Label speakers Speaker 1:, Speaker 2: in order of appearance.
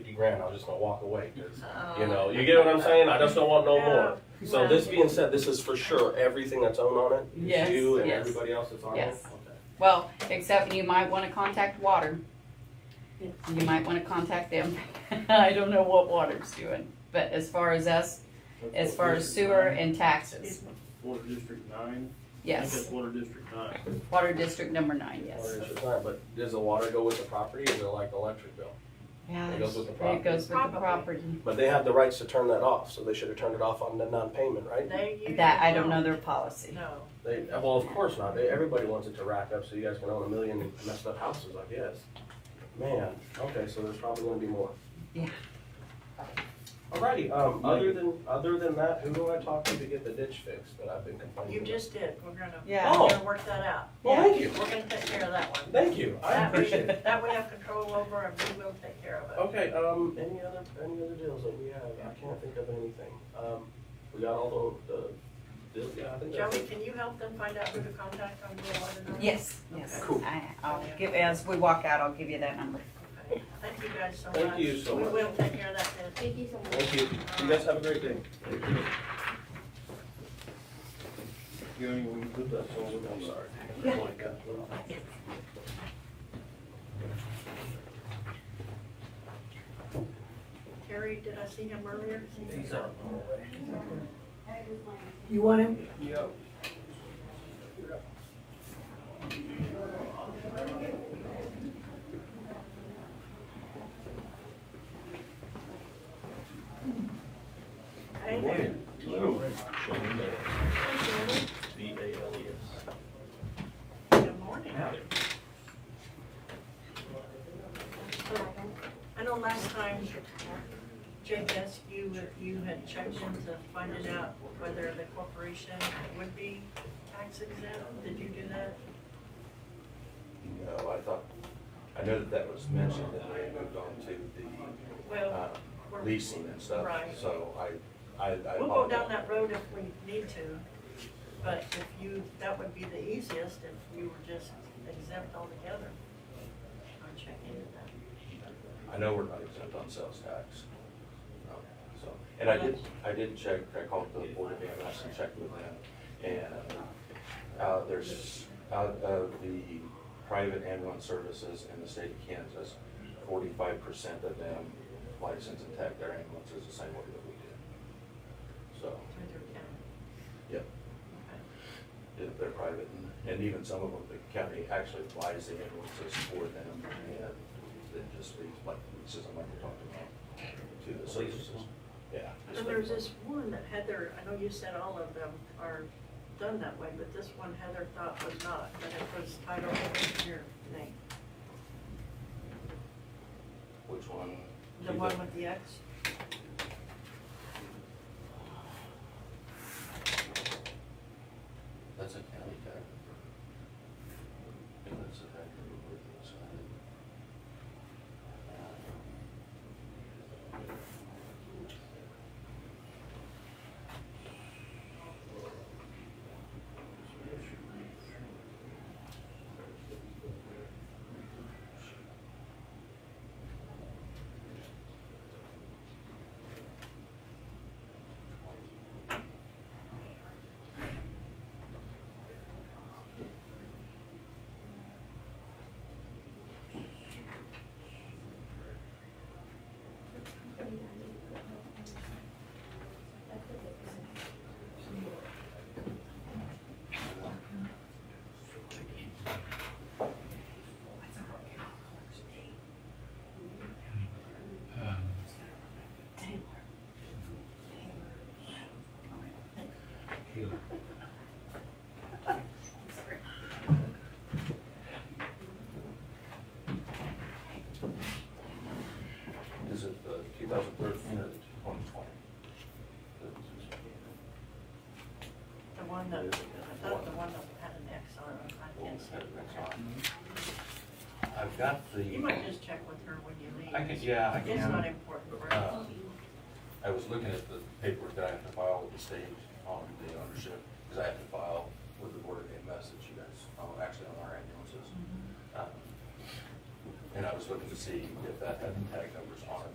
Speaker 1: grand, I was just gonna walk away, 'cause,
Speaker 2: Uh,
Speaker 1: you know, you get what I'm saying? I just don't want no more.
Speaker 2: Yeah.
Speaker 1: So this being said, this is for sure, everything that's owned on it? It's
Speaker 3: Yes,
Speaker 1: You and
Speaker 3: yes.
Speaker 1: everybody else that's on it?
Speaker 3: Yes.
Speaker 1: Okay.
Speaker 3: Well, except you might wanna contact water. You might wanna contact them. I don't know what water's doing, but as far as us, as far as sewer and taxes,
Speaker 4: Water District Nine? I think
Speaker 3: yes.
Speaker 4: that's Water District Nine.
Speaker 3: Water District number nine, yes.
Speaker 1: Water is your client, But does the water go with the property or is it like the electric bill?
Speaker 3: Yeah,
Speaker 1: It goes with the
Speaker 3: it goes with the
Speaker 2: Probably.
Speaker 3: property.
Speaker 1: But they have the rights to turn that off, so they should have turned it off on the non-payment, right?
Speaker 2: They usually
Speaker 3: That, I don't know their policy.
Speaker 2: No.
Speaker 1: They, well, of course not. They, everybody wants it to rack up so you guys can own a million messed up houses, I guess. Man, okay, so there's probably gonna be more.
Speaker 3: Yeah.
Speaker 1: Alrighty, um, other than, other than that, who do I talk to to get the ditch fixed that I've been complaining
Speaker 2: You
Speaker 1: about?
Speaker 2: just did. We're gonna, we're
Speaker 3: Yeah.
Speaker 2: gonna work that out.
Speaker 1: Well, thank you,
Speaker 2: We're gonna take care of that one.
Speaker 1: thank you. I
Speaker 2: That we-
Speaker 1: appreciate it.
Speaker 2: That we have control over and we will take care of it.
Speaker 1: Okay, um, any other, any other deals that we have? I can't think of anything. Um, we got all the, the, deals? yeah, I think that's
Speaker 2: Joey,
Speaker 1: it.
Speaker 2: can you help them find out who to contact on the water number?
Speaker 3: Yes, yes.
Speaker 1: Cool.
Speaker 3: I, I'll give, as we walk out, I'll give you that number.
Speaker 2: Okay. Thank you guys so much.
Speaker 1: Thank you so much.
Speaker 2: We will take care of that then.
Speaker 5: Thank you so much.
Speaker 1: Thank you. You guys have a great day. I'm sorry. Oh,
Speaker 2: Terry, did I see him earlier?
Speaker 6: You want him?
Speaker 2: Hey there.
Speaker 4: B A L E S.
Speaker 2: Good morning. I know last time, Jake asked you if you had checked into finding out whether the corporation would be tax exempt. Did you do that?
Speaker 7: No, I thought, I know that that was mentioned and they moved on to the
Speaker 2: Well,
Speaker 7: uh,
Speaker 2: we're-
Speaker 7: leasing and stuff.
Speaker 2: Right.
Speaker 7: So I, I, I
Speaker 2: we'll go
Speaker 7: apologize.
Speaker 2: down that road if we need to, but if you, that would be the easiest if you were just exempt altogether. I'll check into that.
Speaker 7: I know we're not exempt on sales tax. Um, So, and I did, I did check, I called the board of AMS and checked with them. And uh, there's, out of the private ambulance services in the state of Kansas, forty-five percent of them license and tag their ambulances the same way that we do. So,
Speaker 2: through their account.
Speaker 7: Yep. if they're private, and- and even some of them, the county actually buys the ambulances for them, and then just leaves, like, this is, I'm like, talking about, to the services, yeah.
Speaker 2: And there's this one that Heather, I know you said all of them are done that way, but this one Heather thought was not, but it was titled in your name.
Speaker 7: Which one?
Speaker 2: The one with the X?
Speaker 7: That's a county tag. And that's a tag that we work inside. Is it the two thousand thirteen or the twenty twenty?
Speaker 2: The one that, I thought the one that had an X on it, I can't see.
Speaker 7: I've got
Speaker 2: You might
Speaker 7: the,
Speaker 2: just check with her when you leave.
Speaker 7: I could, yeah, I can.
Speaker 2: It's not important, right?
Speaker 7: Uh, I was looking at the paperwork that I have to file with the state on the ownership, because I have to file with the board of AMS that you guys, oh, actually on our Um, ambulances. Um, And I was looking to see if that had the tag numbers on it.